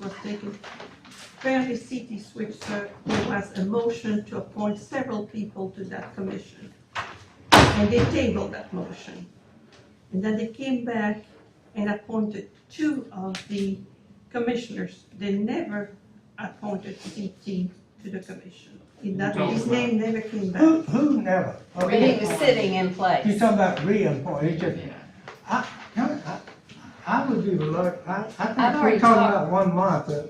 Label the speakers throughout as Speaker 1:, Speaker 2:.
Speaker 1: was taken fairly city switch, so there was a motion to appoint several people to that commission. And they tabled that motion. And then they came back and appointed two of the commissioners. They never appointed CT to the commission. In that,
Speaker 2: No.
Speaker 1: his name never came
Speaker 3: Who,
Speaker 1: back.
Speaker 3: who never?
Speaker 4: But he was sitting in place.
Speaker 3: You're talking about reappoint, it's just, I, no, I, I would be reluctant, I, I
Speaker 4: I've
Speaker 3: think
Speaker 4: already
Speaker 3: we're talking
Speaker 4: talked-
Speaker 3: about one month. uh,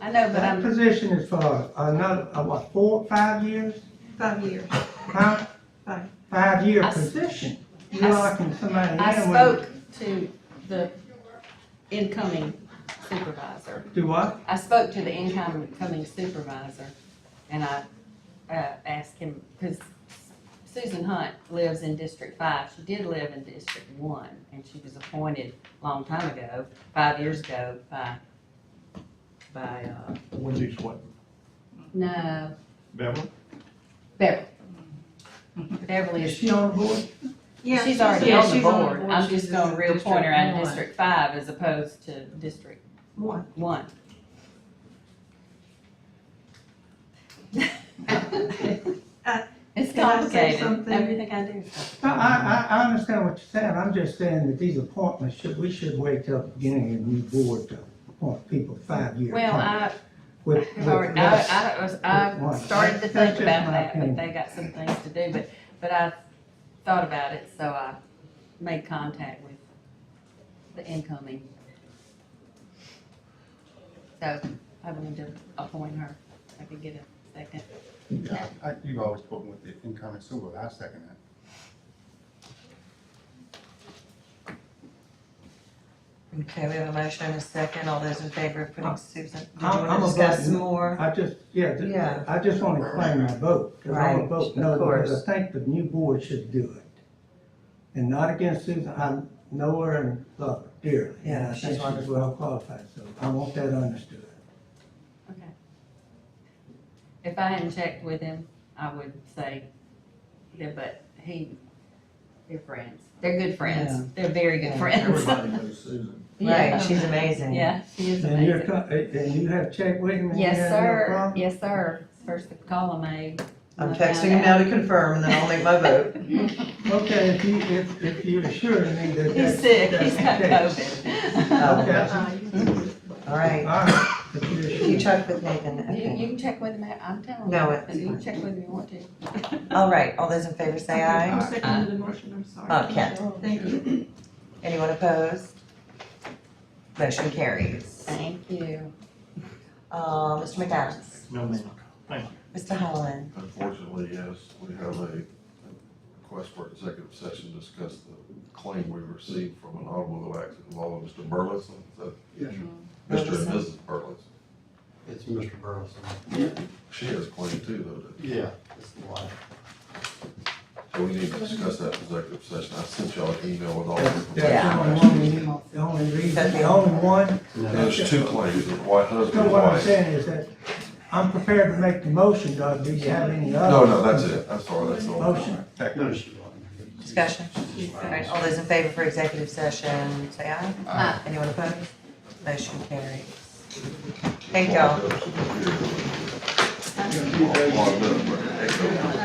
Speaker 4: I know, but
Speaker 3: That
Speaker 4: I'm,
Speaker 3: position is for another, uh, what, four, five years?
Speaker 1: Five years,
Speaker 3: Huh?
Speaker 1: five.
Speaker 3: Five-year
Speaker 4: I s-
Speaker 3: position.
Speaker 4: I
Speaker 3: You're
Speaker 4: s-
Speaker 3: locking somebody in.
Speaker 4: I
Speaker 3: when-
Speaker 4: spoke to the incoming supervisor.
Speaker 3: Do what?
Speaker 4: I spoke to the incoming supervisor and I, uh, asked him, because Susan Hunt lives in District Five. She did live in District One and she was appointed a long time ago, five years ago by, by, uh,
Speaker 2: Wendy's what,
Speaker 4: no,
Speaker 2: Beverly?
Speaker 4: Beverly. Beverly
Speaker 3: Is
Speaker 4: is
Speaker 3: she on board?
Speaker 1: Yeah,
Speaker 4: She's already
Speaker 1: yeah,
Speaker 4: on the
Speaker 1: she's on
Speaker 4: board, I'm just
Speaker 5: She's
Speaker 4: gonna
Speaker 5: in
Speaker 4: reappoint her
Speaker 5: District
Speaker 4: in
Speaker 5: One.
Speaker 4: District Five as opposed to District
Speaker 1: One.
Speaker 4: One. It's Uh,
Speaker 1: Can I say
Speaker 4: complicated,
Speaker 1: something?
Speaker 4: everything I do is complicated.
Speaker 3: No, I, I, I understand what you're saying, I'm just saying that these appointments should, we should wait till the beginning of the new board to appoint people five-year.
Speaker 4: Well, I,
Speaker 3: With,
Speaker 4: I've
Speaker 3: with
Speaker 4: already-
Speaker 3: less-
Speaker 4: I, I, was- I
Speaker 3: One.
Speaker 4: started to think
Speaker 3: That's just
Speaker 4: about
Speaker 3: my
Speaker 4: that, but
Speaker 3: opinion.
Speaker 4: they got some things to do, but, but I thought about it, so I made contact with the incoming. So, I wanted to appoint her, if I could get a second.
Speaker 6: Yeah, I, you've always spoken with the incoming sewer, I second that.
Speaker 5: Okay, we have a motion and a second. All those in favor of putting Susan, did you
Speaker 3: I'm- I'm a
Speaker 5: want to discuss
Speaker 3: vote.
Speaker 5: some more?
Speaker 3: I just, yeah, th-
Speaker 5: Yeah.
Speaker 3: I just want to claim my vote, because I want to
Speaker 5: Right,
Speaker 3: vote
Speaker 5: of
Speaker 3: no, because
Speaker 5: course.
Speaker 3: I think the new board should do it. And not against Susan, I know her and love her dearly, and
Speaker 5: Yeah,
Speaker 3: I
Speaker 5: she's
Speaker 3: think she's
Speaker 5: wonderful.
Speaker 3: well qualified, so I want that understood.
Speaker 4: Okay. If I hadn't checked with him, I would say, yeah, but he, they're friends. They're good
Speaker 3: Yeah.
Speaker 4: friends. They're very good
Speaker 3: Yeah.
Speaker 4: friends.
Speaker 2: Everybody knows Susan.
Speaker 5: Right,
Speaker 4: Yeah.
Speaker 5: she's amazing.
Speaker 4: Yeah, she is
Speaker 3: And you're,
Speaker 4: amazing.
Speaker 3: co- and and you have checked with him? and you
Speaker 4: Yes,
Speaker 3: have no
Speaker 4: sir.
Speaker 3: problem?
Speaker 4: Yes, sir. First eh? the call I made.
Speaker 5: I'm
Speaker 4: I
Speaker 5: texting him
Speaker 4: found
Speaker 5: now
Speaker 4: out.
Speaker 5: to confirm and then I'll make my vote.
Speaker 3: Okay, if you, if, if you assure me that that's.
Speaker 4: He's sick. He's
Speaker 3: that's the
Speaker 4: got
Speaker 3: case.
Speaker 4: COVID.
Speaker 5: Oh.
Speaker 3: Okay,
Speaker 5: All
Speaker 3: all
Speaker 5: right.
Speaker 3: right, if you assure.
Speaker 5: If you check with Nathan,
Speaker 4: You, you
Speaker 5: okay.
Speaker 4: can check with him. at- I'm telling
Speaker 5: No,
Speaker 4: you.
Speaker 5: it's
Speaker 4: but You can check with him if you want to.
Speaker 5: All right, all those in favor say
Speaker 1: I'm
Speaker 5: aye.
Speaker 1: seconding the motion, I'm sorry.
Speaker 5: Oh, Kent.
Speaker 1: Thank you.
Speaker 5: Anyone opposed? Motion carries.
Speaker 4: Thank you.
Speaker 5: Uh, Mr. McAdams,
Speaker 2: No, ma'am.
Speaker 5: Mr. Holland,
Speaker 7: Unfortunately, yes, we have a request for executive session to discuss the claim we received from an automobile accident involving Mr. Burleson. Is that-
Speaker 6: Yes.
Speaker 7: Mr. and
Speaker 5: Burleson.
Speaker 7: Mrs. Burleson.
Speaker 6: It's Mr. Burleson.
Speaker 7: She has a claim too, though, doesn't she?
Speaker 6: Yeah, it's the wife.
Speaker 7: so we need to discuss that in executive session. I sent y'all an email with all the
Speaker 3: That's
Speaker 7: information.
Speaker 3: the only one we need, the only reason, the only one
Speaker 7: There's two claims, the white husband
Speaker 3: No,
Speaker 7: and
Speaker 3: what I'm
Speaker 7: wife.
Speaker 3: saying is that I'm prepared to make the motion, Doug, do you have any other?
Speaker 7: No, no, that's it. I'm sorry, that's all.
Speaker 3: Motion.
Speaker 6: No, she wasn't.
Speaker 5: discussion. All right, all those in favor for executive session, say aye.
Speaker 4: Aye.
Speaker 5: Anyone opposed? Motion carries. Thank y'all.
Speaker 7: Logged up, but it ain't gonna-